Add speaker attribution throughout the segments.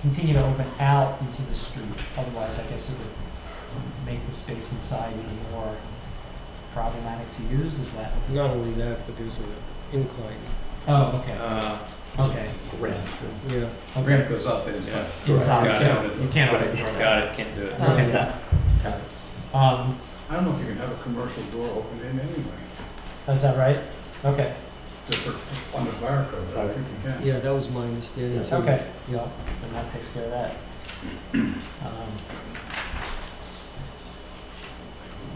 Speaker 1: continue to open out into the street. Otherwise, I guess it would make the space inside even more problematic to use, is that?
Speaker 2: Not only that, but there's an incline.
Speaker 1: Oh, okay,
Speaker 3: Uh,
Speaker 1: okay.
Speaker 2: Yeah.
Speaker 1: okay.
Speaker 3: ramp goes up and it's like,
Speaker 1: Inside,
Speaker 3: Got
Speaker 1: so
Speaker 3: it.
Speaker 1: you can't open the door.
Speaker 3: got it, can't do it.
Speaker 1: Got it. Um,
Speaker 4: I don't know if you can have a commercial door opened in anyway,
Speaker 1: is that right? Okay,
Speaker 4: just for, under fire code, I don't think you can.
Speaker 2: Yeah, that was my understanding too.
Speaker 1: okay.
Speaker 2: Yeah.
Speaker 1: And that takes care of that. Um,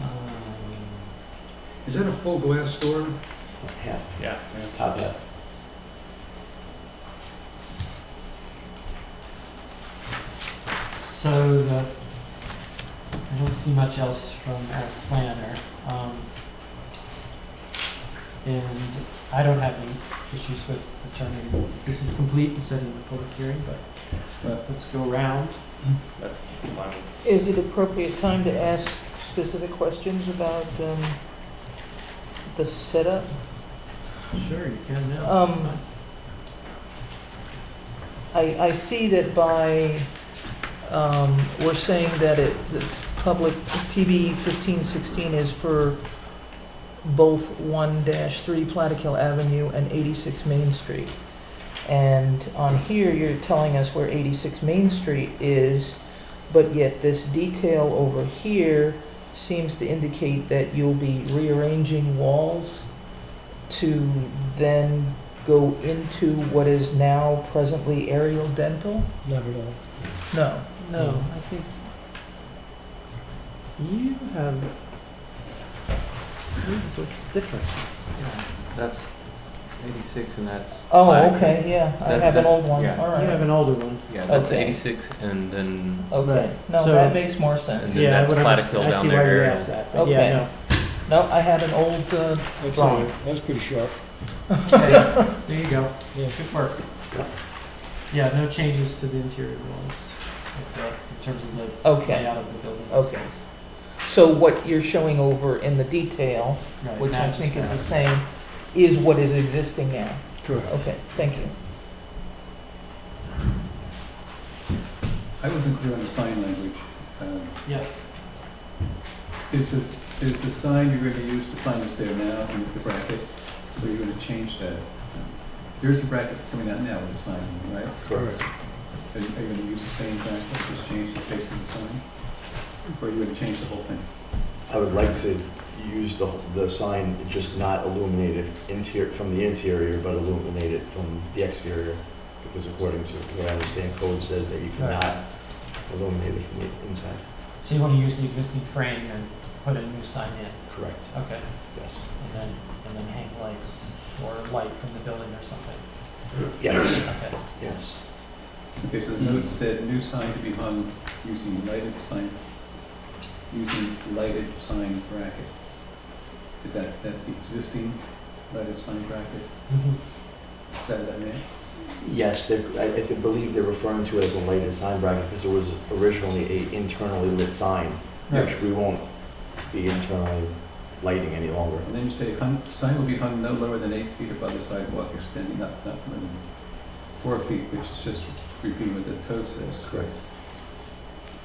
Speaker 1: um,
Speaker 4: Is that a full glass door?
Speaker 5: Half,
Speaker 3: Yeah.
Speaker 5: top half.
Speaker 1: So the, I don't see much else from our planner. Um, and I don't have any issues with determining this is complete and setting the public hearing,
Speaker 4: Yeah.
Speaker 1: but let's go around.
Speaker 3: Fine.
Speaker 6: Is it appropriate time to ask specific questions about um, the setup?
Speaker 1: Sure, you can now.
Speaker 6: Um, I, I see that by, um, we're saying that it, the public, PB 1516 is for both 1-3 Plattekill Avenue and 86 Main Street. And on here, you're telling us where 86 Main Street is, but yet this detail over here seems to indicate that you'll be rearranging walls to then go into what is now presently aerial dental?
Speaker 2: Not at all.
Speaker 6: No.
Speaker 1: No, I think you have,
Speaker 5: What's different? That's eighty-six and that's.
Speaker 6: Oh,
Speaker 5: five.
Speaker 6: okay, yeah, I
Speaker 5: That-
Speaker 6: have an
Speaker 5: that's-
Speaker 6: old one,
Speaker 5: yeah.
Speaker 6: all
Speaker 1: you have
Speaker 6: right.
Speaker 1: an older one.
Speaker 5: Yeah, that's
Speaker 6: Okay.
Speaker 5: eighty-six and then,
Speaker 6: Okay,
Speaker 1: Right.
Speaker 6: no,
Speaker 1: So-
Speaker 6: that makes more
Speaker 5: and
Speaker 6: sense.
Speaker 5: then
Speaker 1: Yeah,
Speaker 5: that's
Speaker 1: whatever,
Speaker 5: Plattekill
Speaker 1: I
Speaker 5: down
Speaker 1: see why you
Speaker 5: there.
Speaker 1: asked
Speaker 5: aerial.
Speaker 1: that, but yeah,
Speaker 6: Okay.
Speaker 1: no.
Speaker 6: No, I had an old, uh,
Speaker 2: That's
Speaker 6: Wrong.
Speaker 2: all right. That was pretty sharp.
Speaker 1: Hey, There you go.
Speaker 2: Yeah.
Speaker 1: Good work. Yeah, no changes to the interior walls, like, uh, in terms of the
Speaker 6: okay.
Speaker 1: layout of the building.
Speaker 6: Okay. So what you're showing over in the detail,
Speaker 1: Right,
Speaker 6: which I
Speaker 1: matches
Speaker 6: think is the
Speaker 1: that.
Speaker 6: same, is what is existing now.
Speaker 2: Correct.
Speaker 6: Okay, thank you.
Speaker 4: I wasn't clear on the sign language. Um,
Speaker 1: Yes,
Speaker 4: Is the, is the sign you're gonna use, the sign that's there now in the bracket, or you're gonna change that? There's a bracket coming out now with the sign, right?
Speaker 2: Correct.
Speaker 4: Are you are you gonna use the same bracket, just change the face of the sign? Or are you gonna change the whole thing?
Speaker 7: I would like to use the, the sign, just not illuminate it interior, from the interior, but illuminate it from the exterior. Because according to what I understand, code says that you cannot illuminate it from the inside.
Speaker 1: so you wanna use the existing frame and put a new sign in,
Speaker 7: Correct.
Speaker 1: okay,
Speaker 7: Yes.
Speaker 1: and then, and then hang lights or light from the building or something,
Speaker 7: Yes,
Speaker 1: okay.
Speaker 7: yes.
Speaker 4: Okay, so the note said new sign to be hung using lighted sign, using lighted sign bracket. Is that, that's the existing lighted sign bracket?
Speaker 1: Mhm.
Speaker 4: Is that what that meant?
Speaker 7: Yes, they're- I, I think- believe they're referring to it as a lighted sign bracket because there was originally a internally lit sign, which we won't be internally lighting any longer.
Speaker 4: And then you say hung, sign will be hung no lower than eight feet above the sidewalk extending up not more than four feet, which is just repeating what the code says.
Speaker 7: Correct.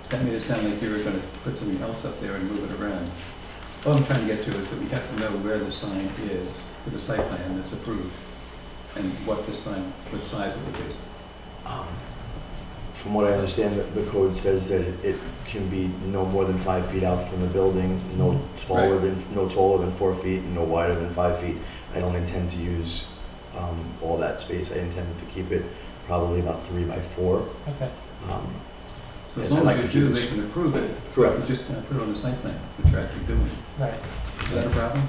Speaker 4: That made it sound like you were gonna put something else up there and move it around. All I'm trying to get to is that we have to know where the sign is for the site plan that's approved and what the sign, what size of it is.
Speaker 7: Um, From what I understand, the- the code says that it- it can be no more than five feet out from the building, no taller
Speaker 4: Right.
Speaker 7: than, no taller than four feet, and no wider than five feet. I don't intend to use um, all that space. I intend to keep it probably about three by four.
Speaker 1: Okay,
Speaker 7: Um,
Speaker 4: So as
Speaker 7: Yeah, I'd
Speaker 4: long
Speaker 7: like
Speaker 4: as
Speaker 7: to
Speaker 4: you do,
Speaker 7: keep
Speaker 4: they
Speaker 7: this-
Speaker 4: can approve it,
Speaker 7: Correct.
Speaker 4: but just not put it on the site plan, which you're actually doing.
Speaker 1: right,
Speaker 4: Is that a problem?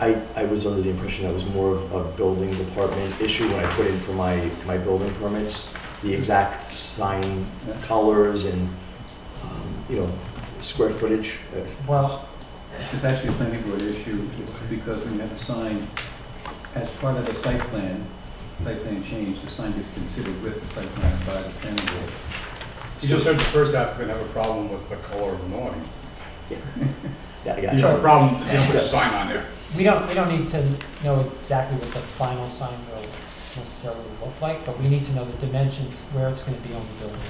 Speaker 7: I, I was under the impression that was more of a building department issue when I put in for my, my building permits. The exact sign
Speaker 4: Yeah.
Speaker 7: colors and, um, you know, square footage. uh,
Speaker 1: well,
Speaker 4: It's actually a planning board issue, it's because when you have a sign, as part of the site plan, site plan change, the sign is considered with the site plan by the planning board.
Speaker 8: You just heard the first applicant have a problem with the color of the awning.
Speaker 7: Yeah, I got
Speaker 8: You have a
Speaker 7: you.
Speaker 8: problem, you don't put a sign on there.
Speaker 1: we don't, we don't need to know exactly what the final sign will necessarily look like, but we need to know the dimensions, where it's gonna be on the building.